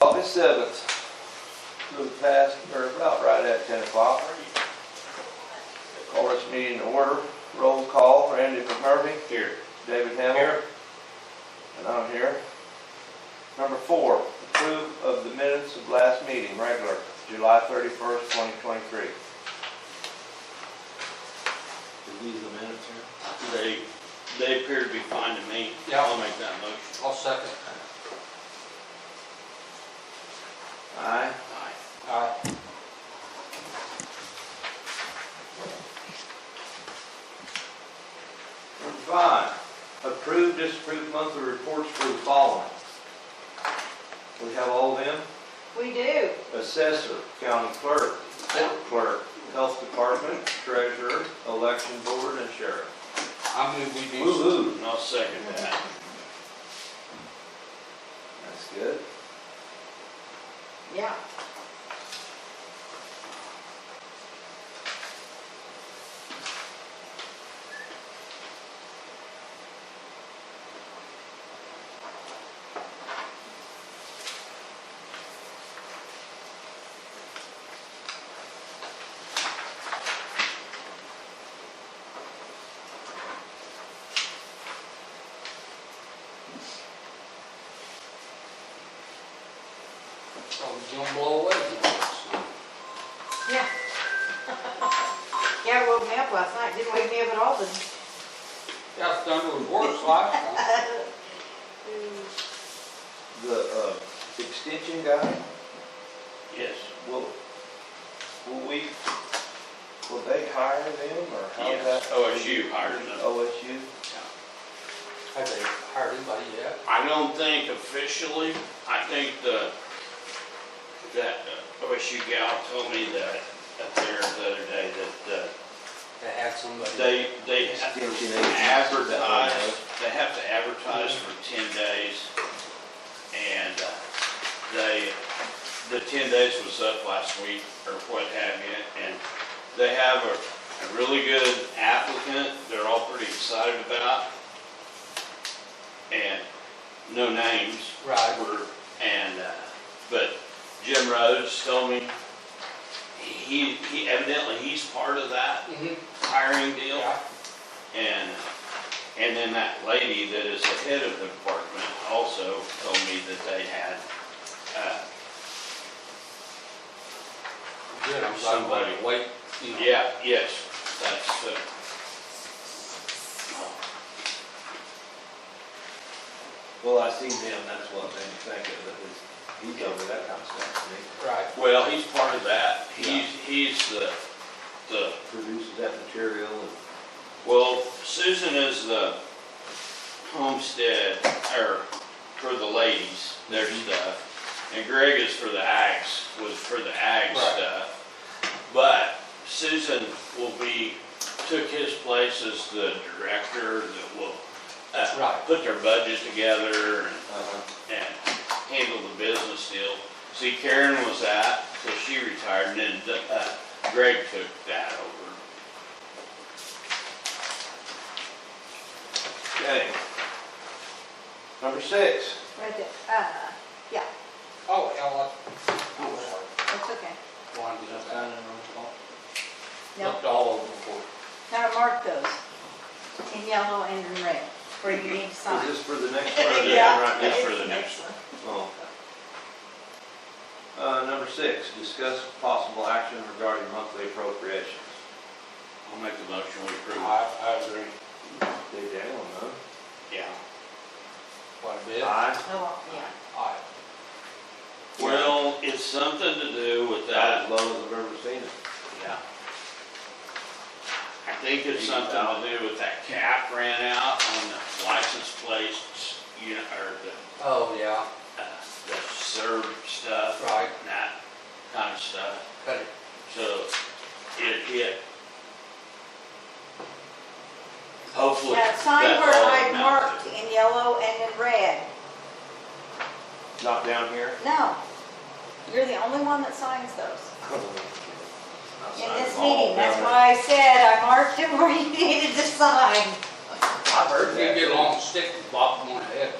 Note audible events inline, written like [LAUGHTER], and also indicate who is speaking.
Speaker 1: August seventh, little past, or about right at ten o'clock. Call this meeting to order, roll call, Randy McMurphy. Here. David Hamel. Here. And I'm here. Number four, approve of the minutes of last meeting, regular, July thirty-first, twenty twenty-three.
Speaker 2: Are these the minutes here?
Speaker 3: They, they appear to be fine to me.
Speaker 4: Yeah.
Speaker 3: I'll make that motion.
Speaker 4: I'll second.
Speaker 1: Aye.
Speaker 3: Aye.
Speaker 4: Aye.
Speaker 1: Number five, approve, disapprove monthly reports for the following. We have all of them?
Speaker 5: We do.
Speaker 1: assessor, county clerk, court clerk, health department, treasurer, election board, and sheriff.
Speaker 4: I move we do.
Speaker 1: Woo-hoo,
Speaker 3: And I'll second that.
Speaker 1: that's good.
Speaker 5: Yeah.
Speaker 4: Oh, it's gonna blow away.
Speaker 5: Yeah. Yeah, woke me up last night, didn't wake me up at all, but.
Speaker 4: Yeah, thunder was worse last [LAUGHS] time.
Speaker 1: The, uh, extension guy,
Speaker 3: Yes.
Speaker 1: will, will we, will they hire them, or how's that?
Speaker 3: Yes. OSU hired them.
Speaker 1: OSU?
Speaker 4: Have they hired anybody yet?
Speaker 3: I don't think officially, I think the, that uh, OSU gal told me that up there the other day that, uh,
Speaker 4: They had somebody.
Speaker 3: they, they have to
Speaker 1: Extension agents.
Speaker 3: advertise, they have to advertise for ten days. And uh, they, the ten days was up last week or what have you, and they have a, a really good applicant, they're all pretty excited about. And no names,
Speaker 4: Right.
Speaker 3: were, and, uh, but Jim Rhodes told me, he, he evidently, he's part of that
Speaker 4: Mhm.
Speaker 3: hiring deal.
Speaker 4: Yeah.
Speaker 3: And, and then that lady that is the head of the department also told me that they had, uh,
Speaker 4: Good, I'm glad we
Speaker 3: Somebody.
Speaker 4: wait, you know.
Speaker 3: yeah, yes, that's uh, the.
Speaker 2: Well, I seen them, that's what made me think of it, was he told me that kind of stuff to me.
Speaker 4: Right.
Speaker 3: Well, he's part of that.
Speaker 2: Yeah.
Speaker 3: He's, he's the, the,
Speaker 2: Produces that material and.
Speaker 3: well, Susan is the homestead, or for the ladies, their
Speaker 4: Mm-hmm.
Speaker 3: stuff. And Greg is for the ags, was for the ag
Speaker 4: Right.
Speaker 3: stuff. But Susan will be, took his place as the director that will, uh,
Speaker 4: Right.
Speaker 3: put their budget together and
Speaker 1: uh,
Speaker 2: Uh-huh.
Speaker 3: and handle the business deal. See, Karen was out, so she retired, and then uh, Greg took that over.
Speaker 1: Okay. Number six,
Speaker 5: Right there, uh,
Speaker 4: Oh, hell,
Speaker 5: that's okay.
Speaker 4: I wanted to do that.
Speaker 2: Signing on the clock.
Speaker 5: No,
Speaker 4: Looked all over before.
Speaker 5: now mark those in yellow and in red, where you need to
Speaker 1: is
Speaker 5: sign.
Speaker 1: this for the
Speaker 5: [LAUGHS]
Speaker 1: next
Speaker 3: for
Speaker 1: one?
Speaker 3: the-
Speaker 5: Yeah,
Speaker 3: right, that's for
Speaker 5: it's
Speaker 3: the
Speaker 5: an
Speaker 3: next
Speaker 5: excellent.
Speaker 1: Oh. Uh, number six, discuss possible action regarding monthly appropriations.
Speaker 3: I'll make the motion, we approve. it.
Speaker 4: I, I agree
Speaker 1: They down, huh?
Speaker 3: Yeah.
Speaker 4: quite a bit.
Speaker 3: Ah.
Speaker 1: Aye.
Speaker 5: Oh, yeah.
Speaker 4: Aye.
Speaker 3: Well, it's something to do with
Speaker 1: About as
Speaker 3: that,
Speaker 1: low as I've ever seen it.
Speaker 3: yeah. I think it's something to do with that cap ran out on the license plates, you know, or the,
Speaker 4: Oh, yeah,
Speaker 3: uh, the serve stuff.
Speaker 4: Right.
Speaker 3: and That kind of stuff.
Speaker 4: cut it.
Speaker 3: So it hit. Hopefully.
Speaker 5: Now, sign
Speaker 3: that's
Speaker 5: where
Speaker 3: all
Speaker 5: I
Speaker 3: it amounts
Speaker 5: marked
Speaker 3: to.
Speaker 5: in yellow and in red.
Speaker 1: Not down here? [LAUGHS]
Speaker 5: No, you're the only one that signs those in
Speaker 1: Sign
Speaker 5: this
Speaker 1: them all
Speaker 5: meeting. That's
Speaker 1: down
Speaker 5: why I said I marked it where you needed to sign.
Speaker 4: You get a long stick and bop them on the head.